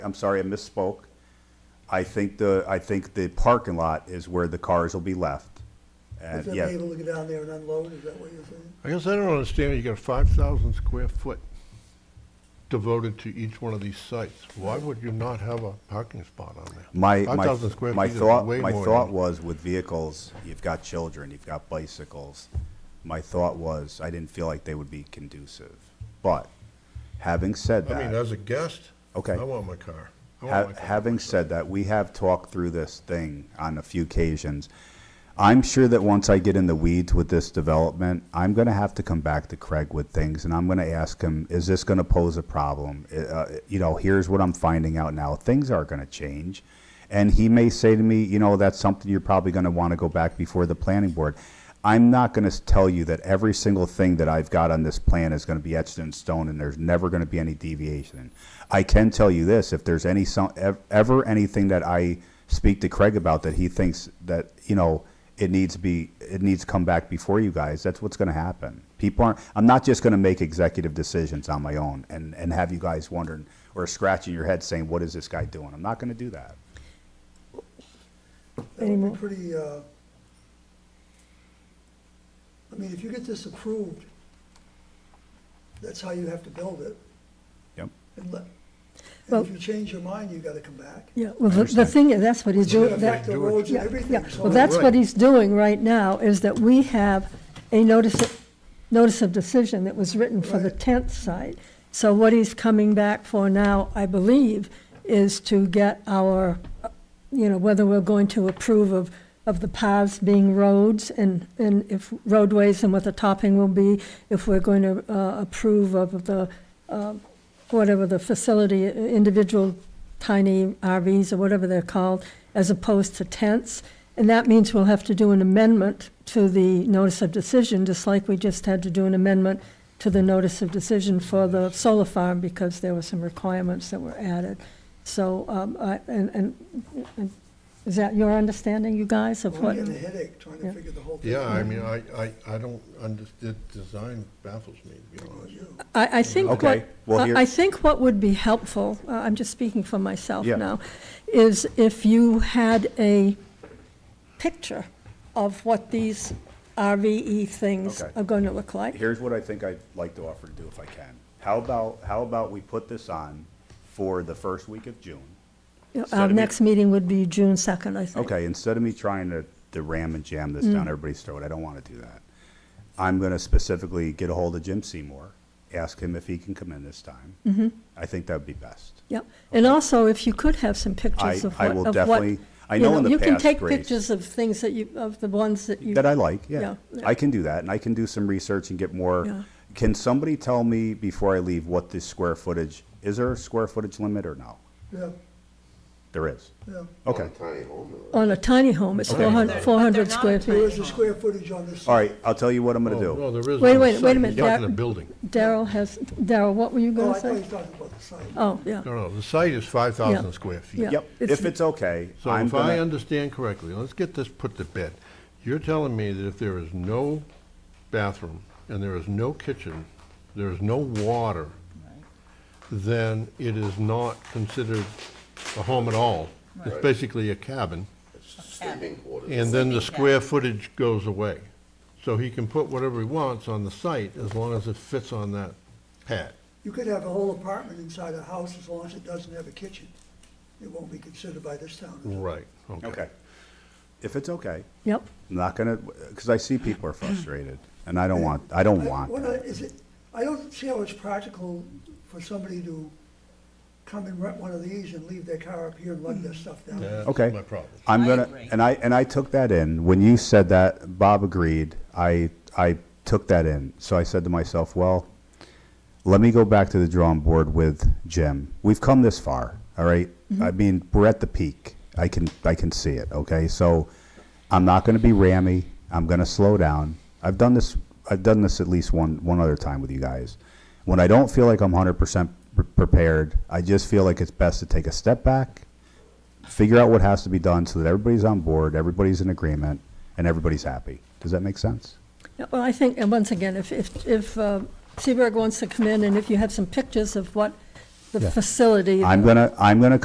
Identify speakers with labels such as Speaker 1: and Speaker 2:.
Speaker 1: I'm sorry, I misspoke. I think the, I think the parking lot is where the cars will be left.
Speaker 2: Is
Speaker 1: And
Speaker 2: that
Speaker 1: yeah,
Speaker 2: being able to go down there and unload, is that what you're saying?
Speaker 3: I guess I don't understand, you got five thousand square foot devoted to each one of these sites. Why would you not have a parking spot on there?
Speaker 1: my,
Speaker 3: Five
Speaker 1: my,
Speaker 3: thousand square
Speaker 1: my
Speaker 3: feet is
Speaker 1: thought,
Speaker 3: way
Speaker 1: my
Speaker 3: more
Speaker 1: thought
Speaker 3: than-
Speaker 1: was with vehicles, you've got children, you've got bicycles. My thought was, I didn't feel like they would be conducive. But having said
Speaker 3: I mean,
Speaker 1: that,
Speaker 3: as a guest,
Speaker 1: Okay.
Speaker 3: I want my car. I want
Speaker 1: ha-
Speaker 3: my car.
Speaker 1: having said that, we have talked through this thing on a few occasions. I'm sure that once I get in the weeds with this development, I'm going to have to come back to Craig with things, and I'm going to ask him, is this going to pose a problem? Uh, Uh, you know, here's what I'm finding out now. Things are going to change. And he may say to me, you know, that's something you're probably going to want to go back before the planning board. I'm not going to tell you that every single thing that I've got on this plan is going to be etched in stone and there's never going to be any deviation. I can tell you this, if there's any, so- ev- ever anything that I speak to Craig about that he thinks that, you know, it needs to be, it needs to come back before you guys, that's what's going to happen. People aren't, I'm not just going to make executive decisions on my own and, and have you guys wondering or scratching your head saying, what is this guy doing? I'm not going to do that.
Speaker 2: That would
Speaker 4: Anymore.
Speaker 2: be pretty, uh, I mean, if you get this approved, that's how you have to build it.
Speaker 1: Yep.
Speaker 2: And let, and
Speaker 4: Well-
Speaker 2: if you change your mind, you gotta come back.
Speaker 4: Yeah, well, the- the thing, is, that's what he's
Speaker 2: You
Speaker 4: doing.
Speaker 2: gotta
Speaker 4: that-
Speaker 2: affect the roads and
Speaker 4: Yeah,
Speaker 2: everything,
Speaker 4: yeah.
Speaker 2: so.
Speaker 4: Well, that's
Speaker 3: Right.
Speaker 4: what he's doing right now, is that we have a notice, of- notice of decision that was written for the
Speaker 2: Right.
Speaker 4: tenth site. So what he's coming back for now, I believe, is to get our, you know, whether we're going to approve of, of the paths being roads and, and if roadways and what the topping will be, if we're going to uh, approve of the, uh, whatever the facility, individual tiny RVs or whatever they're called, as opposed to tents. And that means we'll have to do an amendment to the notice of decision, just like we just had to do an amendment to the notice of decision for the solar farm because there were some requirements that were added. So, um, I, and, and, and is that your understanding, you guys, of
Speaker 2: I'm
Speaker 4: what?
Speaker 2: getting a headache trying to
Speaker 4: Yeah.
Speaker 2: figure the whole thing.
Speaker 3: Yeah,
Speaker 2: out.
Speaker 3: I mean, I, I, I don't understand, design baffles me, to be honest.
Speaker 4: I, I think
Speaker 1: Okay,
Speaker 4: what,
Speaker 1: well, here-
Speaker 4: I I think what would be helpful, uh, I'm just speaking for myself
Speaker 1: Yeah.
Speaker 4: now, is if you had a picture of what these RVE things
Speaker 1: Okay.
Speaker 4: are going to look like.
Speaker 1: Here's what I think I'd like to offer to do if I can. How about, how about we put this on for the first week of June? instead
Speaker 4: Our
Speaker 1: of me-
Speaker 4: next meeting would be June 2nd, I think.
Speaker 1: Okay, instead of me trying to, to ram and jam this
Speaker 4: Mm.
Speaker 1: down everybody's throat, I don't want to do that. I'm going to specifically get a hold of Jim Seymour, ask him if he can come in this time. Mm-hmm. I think that would be best.
Speaker 4: Yep, and also if you could have some
Speaker 1: I,
Speaker 4: pictures of
Speaker 1: I
Speaker 4: what,
Speaker 1: will
Speaker 4: of
Speaker 1: definitely,
Speaker 4: what.
Speaker 1: I
Speaker 4: you
Speaker 1: know in the
Speaker 4: You can
Speaker 1: past,
Speaker 4: take
Speaker 1: Grace-
Speaker 4: pictures of things that you, of the ones that you.
Speaker 1: That I like, yeah.
Speaker 4: Yeah, yeah.
Speaker 1: I can do that, and I can do some research and get
Speaker 4: Yeah.
Speaker 1: more. Can somebody tell me before I leave what the square footage, is there a square footage limit or no?
Speaker 2: Yeah,
Speaker 1: There is.
Speaker 2: yeah.
Speaker 1: Okay.
Speaker 5: Tiny home, though.
Speaker 4: On a tiny home, it's
Speaker 1: Okay.
Speaker 4: 400
Speaker 6: But they're
Speaker 4: 400
Speaker 6: not
Speaker 4: square
Speaker 6: tiny.
Speaker 4: feet.
Speaker 2: Where's the square footage on this?
Speaker 1: All right, I'll tell you what I'm going to
Speaker 3: Oh, No,
Speaker 1: do.
Speaker 3: there isn't.
Speaker 4: Wait,
Speaker 3: on
Speaker 4: wait,
Speaker 3: the
Speaker 4: wait a
Speaker 3: site.
Speaker 4: minute,
Speaker 3: You're talking
Speaker 4: that-
Speaker 3: a building.
Speaker 4: Daryl has, Daryl, what were you
Speaker 2: Oh,
Speaker 4: going
Speaker 2: I
Speaker 4: to
Speaker 2: thought you were
Speaker 4: say?
Speaker 2: talking about the site.
Speaker 4: Oh, yeah.
Speaker 3: No, no, the site is five thousand square feet.
Speaker 4: Yeah.
Speaker 1: Yep,
Speaker 4: It's-
Speaker 1: if it's okay,
Speaker 3: So
Speaker 1: I'm
Speaker 3: if I
Speaker 1: going to,
Speaker 3: understand correctly, let's get this put to bed. You're telling me that if there is no bathroom and there is no kitchen, there is no water, then it is not considered a home at all. It's basically a cabin,
Speaker 5: sleeping quarters.
Speaker 3: and then the square footage goes away. So he can put whatever he wants on the site as long as it fits on that pad.
Speaker 2: You could have a whole apartment inside a house as long as it doesn't have a kitchen. It won't be considered by this town. is it?
Speaker 3: Right, okay.
Speaker 1: okay. If it's okay,
Speaker 4: Yep.
Speaker 1: I'm not going to, because I see people are frustrated, and I don't want, I don't
Speaker 2: I-
Speaker 1: want
Speaker 2: what I-
Speaker 1: that.
Speaker 2: is it, I don't see how it's practical for somebody to come and rent one of these and leave their car up here and lug their stuff down.
Speaker 3: That's
Speaker 1: Okay.
Speaker 3: my problem.
Speaker 1: I'm
Speaker 6: I
Speaker 1: gonna,
Speaker 6: agree.
Speaker 1: and I, and I took that in. When you said that, Bob agreed. I, I took that in. So I said to myself, well, let me go back to the drawing board with Jim. We've come this far, all right?
Speaker 6: Mm-hmm.
Speaker 1: I mean, we're at the peak. I can, I can see it, okay? So I'm not gonna be rammy. I'm gonna slow down. I've done this, I've done this at least one, one other time with you guys. When I don't feel like I'm hundred percent prepared, I just feel like it's best to take a step back, figure out what has to be done so that everybody's on board, everybody's in agreement, and everybody's happy. Does that make sense?
Speaker 4: Yeah, Well, I think, and once again, if, if, if uh, Seaberg wants to come in and if you have some pictures of what the
Speaker 6: Yeah.
Speaker 4: facility.
Speaker 1: I'm gonna, I'm gonna